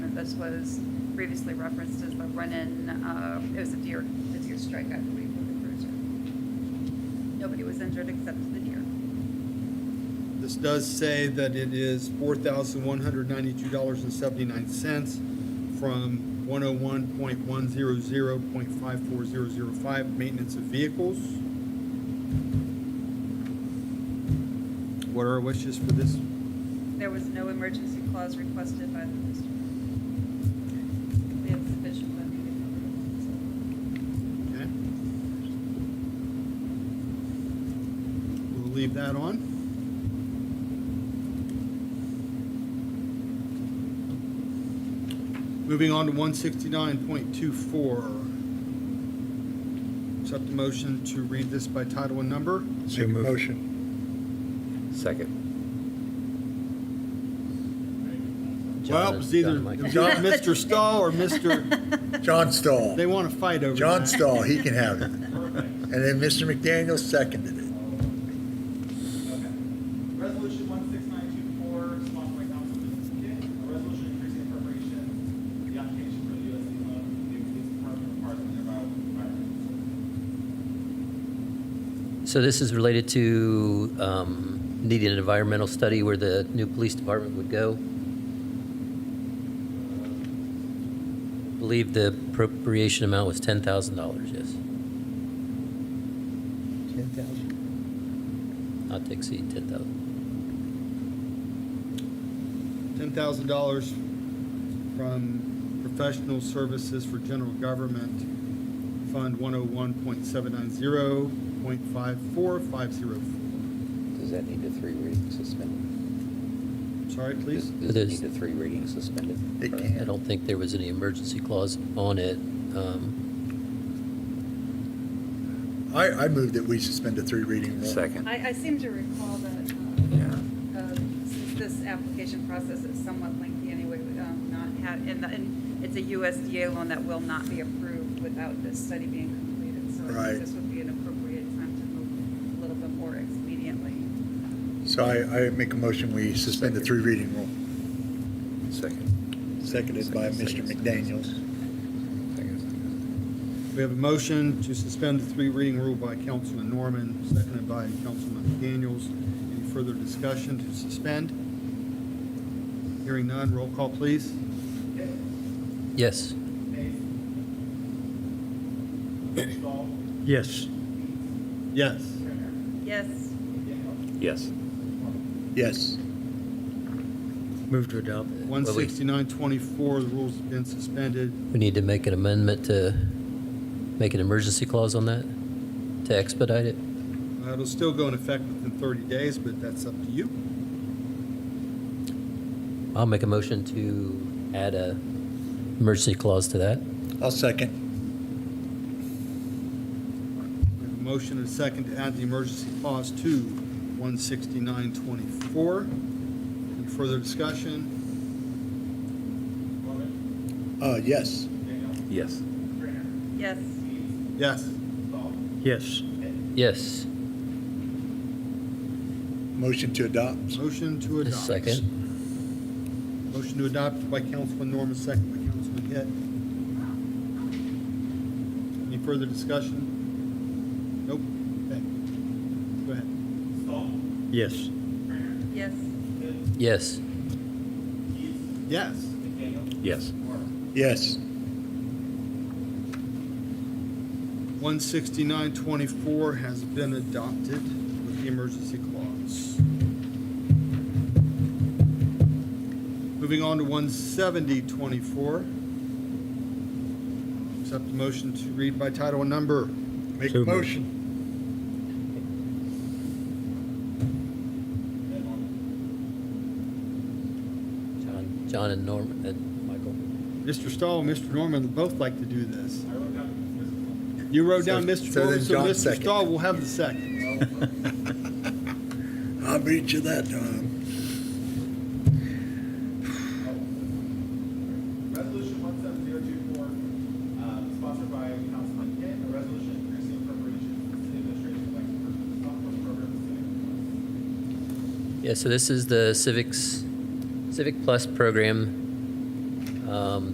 which was previously referenced as the run-in, uh, it was a deer, the deer strike, I believe, with the cruiser. Nobody was injured except the deer. This does say that it is four thousand one hundred ninety-two dollars and seventy-nine cents from one oh one point one zero zero point five four zero zero five, maintenance of vehicles. What are our wishes for this? There was no emergency clause requested by the district. We have sufficient funding to Okay. We'll leave that on. Moving on to one sixty-nine point two four. Accept the motion to read this by title and number. So Make a moved. motion. Second. Well, it was either John, Mike. it was either Mr. Stahl or Mr., John Stahl. they want to fight over John that. Stahl, he can have it. And then Mr. McDaniel seconded it. Okay. Resolution one six nine two four, sponsored by Councilman Kidd, a resolution increasing appropriation, the application for the USD loan, from the police department requires an environmental. So this is related to um, needing an environmental study where the new police department would go. Believe the appropriation amount was $10,000, yes. 10,000. Not to exceed 10,000. ten thousand dollars from professional services for general government, Fund one oh one point seven nine zero point five four five zero. Does that need a three-reading suspended? Sorry, please? Does it There's- need a three-reading suspended? It Or- can. I don't think there was any emergency clause on it. Um, I, I move that we suspend the three reading rule. reimburse. I, I seem to recall that, Yeah. uh, uh, since this application process is somewhat lengthy anyway, we, um, not had, and, and it's a USDA loan that will not be approved without this study being completed. So I Right. think this would be an appropriate time to move a little bit more expediently. So I, I make a motion, we suspend the three reading rule. Second. Seconded by Mr. McDaniel. We have a motion to suspend the three reading rule by Councilman Norman, seconded by Councilman Daniels. Any further discussion to suspend? Hearing none, roll call, please. Yes. Mays. Stahl. Yes. Yes. Turner. Yes. McDaniel. Yes. Yes. Move to adopt. One sixty-nine twenty-four, the rules have been suspended. We need to make an amendment to make an emergency clause on that, to expedite it. Uh, It'll still go in effect within thirty days, but that's up to you. I'll make a motion to add a emergency clause to that. I'll second. We have a motion and a second to add the emergency clause to 16924. Any further discussion? Norman. Uh, yes. McDaniel. Yes. Turner. Yes. Mays. Yes. Stahl. Yes. Yes. Motion to adopt. Motion to A adopt. Second. Motion to adopt by Councilman Norman, second by Councilman Hitt. Any further discussion? Nope. Okay. Go ahead. Stahl. Yes. Turner. Yes. Kidd. Yes. Keith. Yes. McDaniel. Yes. Norman. Yes. 16924 has been adopted with the emergency clause. Moving on to 17024. Accept the motion to read by title and number. Make a motion. Mays. Norman. John, John and Norman and Michael. Mr. Stahl and Mr. Norman both like to do this. I wrote down this one. You wrote down So- Mr. so Norman, then so John Mr. second. Stahl will have the second. I beat you that time. Resolution one seven zero two four, uh, sponsored by Councilman Kidd, a resolution increasing appropriation for the city administration to like purchase the software program. for city employees. Yeah, so this is the Civics, Civic Plus program. Um,